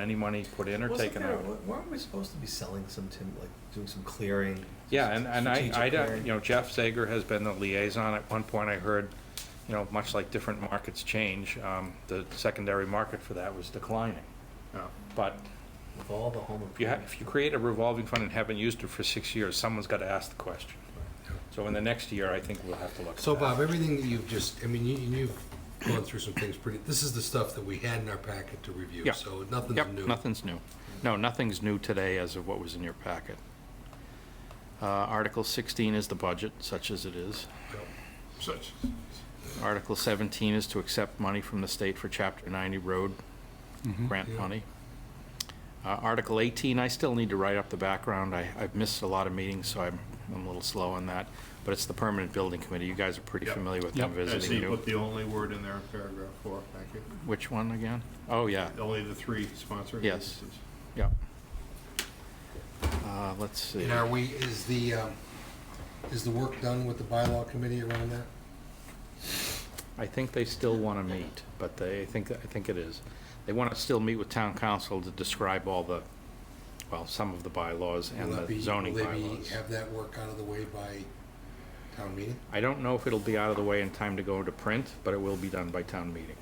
any money put in or Wasn't taken there- out. wa- Weren't we supposed to be selling some tim, like, doing some clearing? Yeah, and, and I, strategic I, don't- clearing? you know, Jeff Zager has been the liaison. At one point, I heard, you know, much like different markets change, um, the secondary market for that was declining. Uh, Oh. But With all the home if you, ha- improvement. if you create a revolving fund and haven't used it for six years, someone's gotta ask the question. So in the next year, I think we'll have to look at that. So Bob, everything that you've just, I mean, you, you've gone through some things pretty, this is the stuff that we had in our packet to review, Yeah. so nothing's Yep, new. nothing's new. No, nothing's new today as of what was in your packet. Uh, Article 16 is the budget, such as it is. Such. Article 17 is to accept money from the state for Chapter 90 road grant Yeah. money. Uh, Article 18, I still need to write up the background. I, I've missed a lot of meetings, so I'm, I'm a little slow on that. But it's the Permanent Building Committee. You guys are pretty Yep. familiar with them I see visiting you you. put the only word in there in paragraph four, thank you. Which one again? Oh, yeah. Only the three sponsoring Yes. agencies. Yep. Uh, Let's see. And are we, is the, um, is the work done with the bylaw committee around that? I think they still want to meet, but they, I think, I think it is. They want to still meet with town council to describe all the, well, some of the bylaws and Will that be- the zoning Will they be, bylaws. have that work out of the way by town meeting? I don't know if it'll be out of the way in time to go into print, but it will be done by town meeting.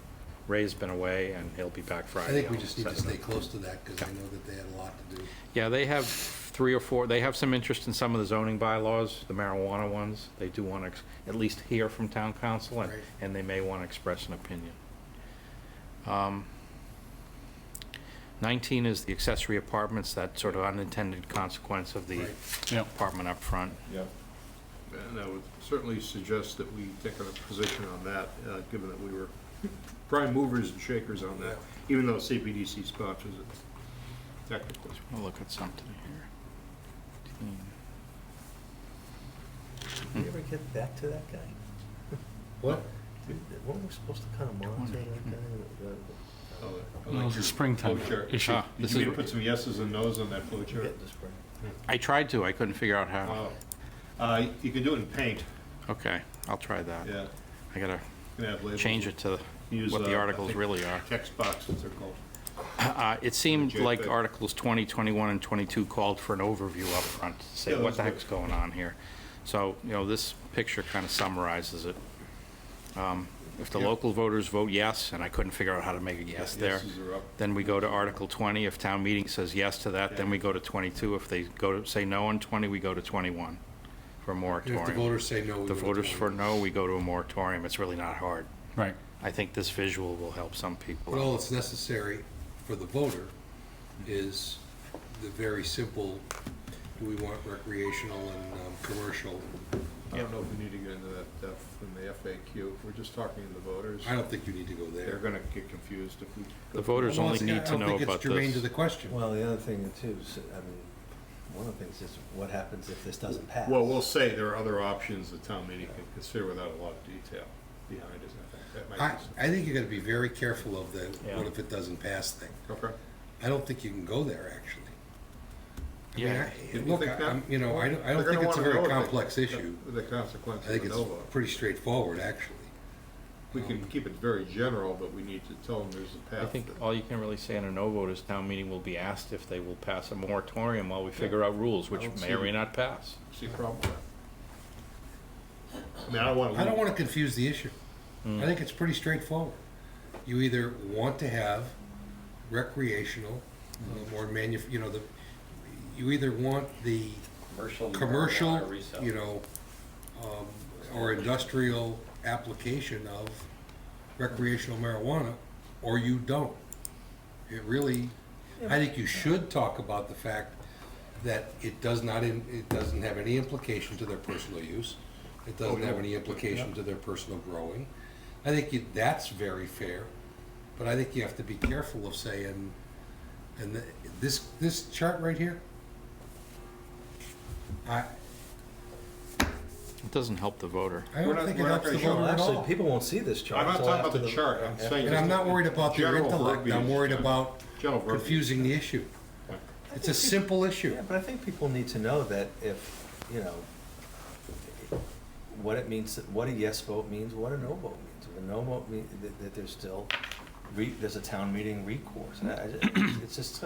Ray's been away and he'll be back I Friday. think we I'll just need to set it up. stay close to that, because I Yeah. know that they had a lot to do. Yeah, they have three or four, they have some interest in some of the zoning bylaws, the marijuana ones. They do want to at least hear from town council, and, Right. and they may want to express an opinion. Um, Nineteen is the accessory apartments, that sort of unintended consequence of the Right. apartment up front. Yeah. And I would certainly suggest that we take a position on that, uh, given that we were prime movers and shakers on that, even though CPDC sponsors it technically. We'll look at something here. Did we ever get back to that guy? What? Did- Weren't we supposed to kind of monitor Twenty. Hmm. that guy? The- the- Oh, I Well, like it's your a springtime flow chart. issue. Ah, Did this you is- mean put some yeses and nos on that flow We're chart? getting this right. I tried to, I couldn't figure out how. Oh. Uh, You could do it in paint, Okay, I'll try that. yeah. I gotta You can add labels. change it to Use, what uh, I the articles think really are. Text boxes are called. Uh, It seemed Reject like that. Articles 20, 21, and 22 called for an overview up front, to say Yeah, what those the were- heck's going on here. So, you know, this picture kind of summarizes it. Um, If the Yeah. local voters vote yes, and I couldn't figure out how to make a yes there, Yeses are up. then we go to Article 20. If town meeting says yes to that, then Yeah. we go to 22. If they go to, say no on 20, we go to 21 for a And If the moratorium. voters say no, we The go to voters for 20. no, we go to a moratorium. It's really not hard. Right. I think this visual will help some people. But all that's necessary for the voter is the very simple, do we want recreational and um, commercial? I don't know if we need to get into that depth in the FAQ. We're just talking to the voters. I don't think you need to go They're there. gonna get confused if we. The voters only need to know I don't think about it's germane this. to the question. Well, the other thing too, is, I mean, one of the things is what happens if this doesn't pass? Well, we'll say there are other options the town meeting can consider without a lot of detail behind it. I think that I, might be. I think you gotta be very careful of the, Yeah. what if it doesn't pass thing. Okay. I don't think you can go there, actually. I mean, Yeah. I- You Look, think I- that- I'm, you know, I don't, I don't They're think gonna it's a wanna know very if they- complex issue. The I consequences think of a it's um, no vote. pretty straightforward, actually. We can keep it very general, but we need to tell them there's a I path. think that- all you can really say in a no vote is town meeting will be asked if they will pass a moratorium while we figure out rules, which I don't may or see- may not pass. See a problem with that. I mean, I don't wanna. I don't leave- wanna confuse the issue. I think it's pretty straightforward. You either want to have recreational um, or manu, you know, the, you either want the Commercial. commercial, marijuana resale. you know, um, or industrial application of recreational marijuana, or you don't. It really, I think you should talk about the fact that it does not, in- it doesn't have any implication to their personal use. It doesn't have any implication to their personal growing. I think you- that's very fair, but I think you have to be careful of saying, and the- this, this chart right here, I, It doesn't help the voter. I We're don't not- think it we're not helps the gonna show voter Well, at actually, all. people won't see this chart. I'm not until talking about after the chart. I'm after- saying- And I'm not worried about their General intellect, I'm verbiage, worried yeah. about General verbiage. confusing the issue. It's a simple issue. Yeah, but I think people need to know that if, you know, what it means, what a yes vote means, what a no vote means. If a no vote means that, that there's still re, there's a town meeting recourse. And I- I- It's just,